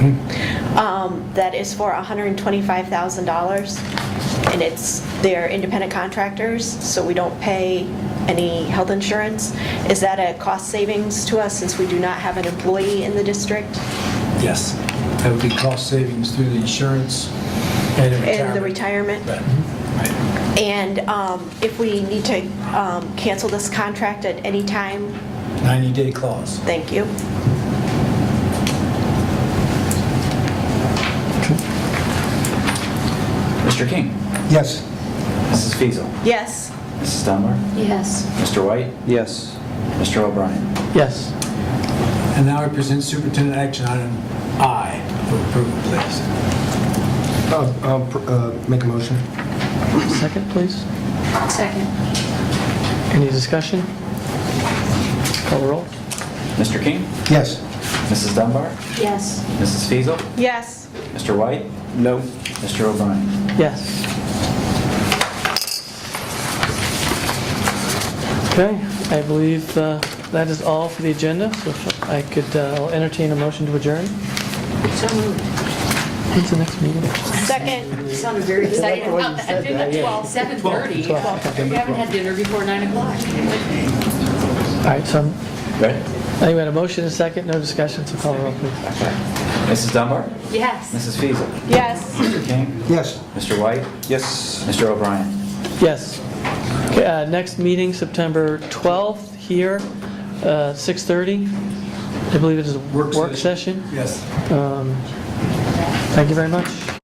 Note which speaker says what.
Speaker 1: um, that is for $125,000, and it's, they're independent contractors, so we don't pay any health insurance. Is that a cost savings to us since we do not have an employee in the district?
Speaker 2: Yes.
Speaker 3: That would be cost savings through the insurance and the retirement.
Speaker 1: And the retirement?
Speaker 3: Right. Right.
Speaker 1: And um, if we need to um, cancel this contract at any time,
Speaker 3: 90-day clause.
Speaker 1: thank you.
Speaker 2: Mr. King?
Speaker 3: Yes.
Speaker 2: Mrs. Fiesel,
Speaker 1: Yes,
Speaker 2: Mrs. Dunbar?
Speaker 4: Yes.
Speaker 2: Mr. White?
Speaker 5: Yes.
Speaker 2: Mr. O'Brien?
Speaker 5: Yes.
Speaker 3: And now I present superintendent action item I for approval, please.
Speaker 6: I'll I'll, uh, make a motion.
Speaker 5: Second, please.
Speaker 4: Second.
Speaker 5: Any discussion? Call the roll.
Speaker 2: Mr. King?
Speaker 6: Yes.
Speaker 2: Mrs. Dunbar?
Speaker 4: Yes.
Speaker 2: Mrs. Fiesel,
Speaker 1: yes.
Speaker 2: Mr. White?
Speaker 5: No.
Speaker 2: Mr. O'Brien?
Speaker 5: Yes. Okay, I believe uh, that is all for the agenda, so if I could uh, I'll entertain a motion to adjourn.
Speaker 4: So moved.
Speaker 5: When's the next meeting?
Speaker 1: Second,
Speaker 4: You sounded very excited about that.
Speaker 7: I think at 12, 7:30.
Speaker 5: Twelve.
Speaker 7: We haven't had dinner before 9 o'clock.
Speaker 5: All right, so I'm-
Speaker 2: Right.
Speaker 5: I think we had a motion, and a second, no discussion, so call the roll, please.
Speaker 2: Mrs. Dunbar?
Speaker 7: Yes.
Speaker 2: Mrs. Fiesel,
Speaker 1: yes.
Speaker 2: Mr. King?
Speaker 6: Yes.
Speaker 2: Mr. White?
Speaker 6: Yes.
Speaker 2: Mr. O'Brien?
Speaker 5: Yes. Okay, uh, Next meeting, September 12th, here, uh, 6:30. I believe it is a work session.
Speaker 3: Yes.
Speaker 5: Thank you very much.